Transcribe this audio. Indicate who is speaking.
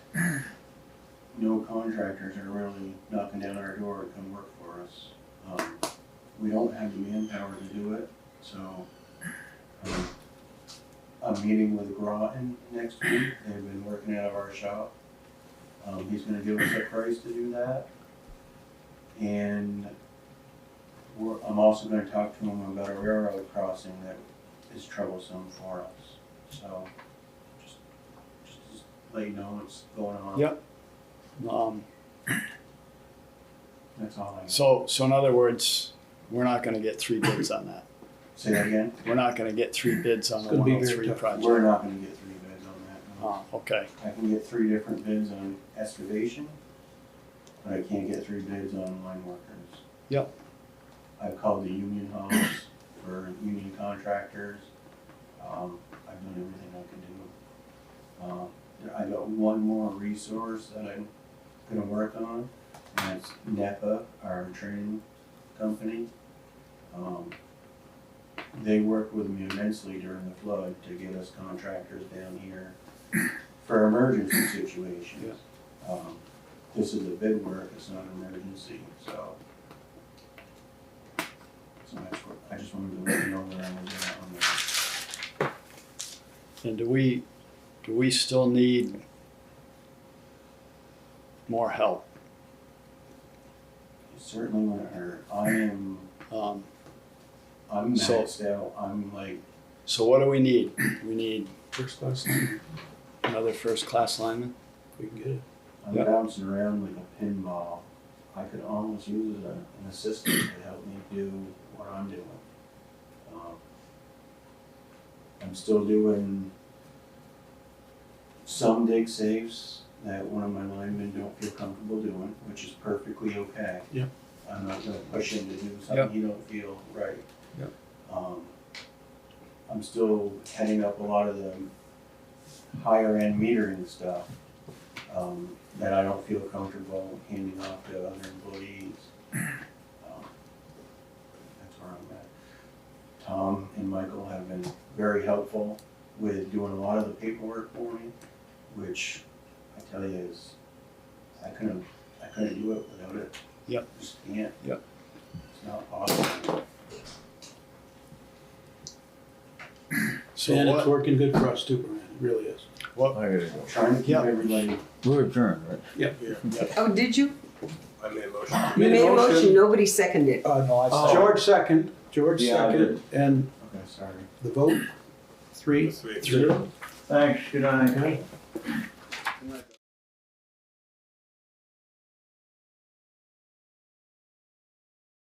Speaker 1: no contractors are really knocking down our door to come work for us. Um, We don't have the manpower to do it, so, um, I'm meeting with Groton next week, they've been working out of our shop. Um, he's gonna give us a price to do that. And we're, I'm also gonna talk to him about a railroad crossing that is troublesome for us, so just, just let you know what's going on.
Speaker 2: Yep. Um,
Speaker 1: That's all I,
Speaker 2: so, so in other words, we're not gonna get three bids on that.
Speaker 1: say that again,
Speaker 2: We're not gonna get three bids on
Speaker 3: It's
Speaker 2: the
Speaker 3: gonna be
Speaker 2: one
Speaker 3: very
Speaker 2: oh three
Speaker 3: tough.
Speaker 2: project.
Speaker 1: we're not gonna get three bids on that. no.
Speaker 2: Oh, okay,
Speaker 1: I can get three different bids on excavation, but I can't get three bids on line workers.
Speaker 2: Yep.
Speaker 1: I've called the union halls for union contractors. Um, I've done everything I can do. Uh, there- I got one more resource that I'm gonna work on, and that's NEPA, our training company. Um, they worked with me immensely during the flood to get us contractors down here for emergency situations. Um, This is a bid work, it's not an emergency, so. So that's what, I just wanted to let you know that I'm doing that on that.
Speaker 2: and do we, do we still need more help?
Speaker 1: It Certainly wouldn't hurt, I am,
Speaker 2: Um,
Speaker 1: I'm
Speaker 2: So-
Speaker 1: maxed out, I'm like,
Speaker 2: so what do we need? We need
Speaker 3: First class, if
Speaker 2: another first-class lineman?
Speaker 3: we can get it.
Speaker 1: I'm
Speaker 2: Yeah.
Speaker 1: bouncing around like a pinball. I could almost use a, an assistant to help me do what I'm doing. Um, I'm still doing some dig saves that one of my linemen don't feel comfortable doing, which is perfectly okay.
Speaker 3: Yeah.
Speaker 1: I'm not gonna push him to do
Speaker 2: Yeah.
Speaker 1: something he don't feel right.
Speaker 3: Yeah.
Speaker 1: Um, I'm still heading up a lot of the higher end metering stuff um, that I don't feel comfortable handing off to other employees. Um, That's where I'm at. Tom and Michael have been very helpful with doing a lot of the paperwork for me, which I tell you is, I couldn't, I couldn't do it without it.
Speaker 2: Yep.
Speaker 1: Just can't.
Speaker 2: Yep.
Speaker 1: It's not possible.
Speaker 2: So
Speaker 3: And it's
Speaker 2: what,
Speaker 3: working good for us too, Brian, it really is.
Speaker 4: I gotta go.
Speaker 1: Trying to keep
Speaker 2: Yep.
Speaker 1: everybody,
Speaker 4: We're adjourned, right?
Speaker 3: Yep.
Speaker 5: Oh, did you?
Speaker 6: I made a motion.
Speaker 5: You made a motion, nobody seconded it.
Speaker 3: Uh, no,
Speaker 4: Oh.
Speaker 3: I, George second, George
Speaker 4: Yeah, I
Speaker 3: second, and
Speaker 1: okay, sorry.
Speaker 3: the vote, three,
Speaker 6: Three.
Speaker 3: zero.
Speaker 4: Thanks, good night.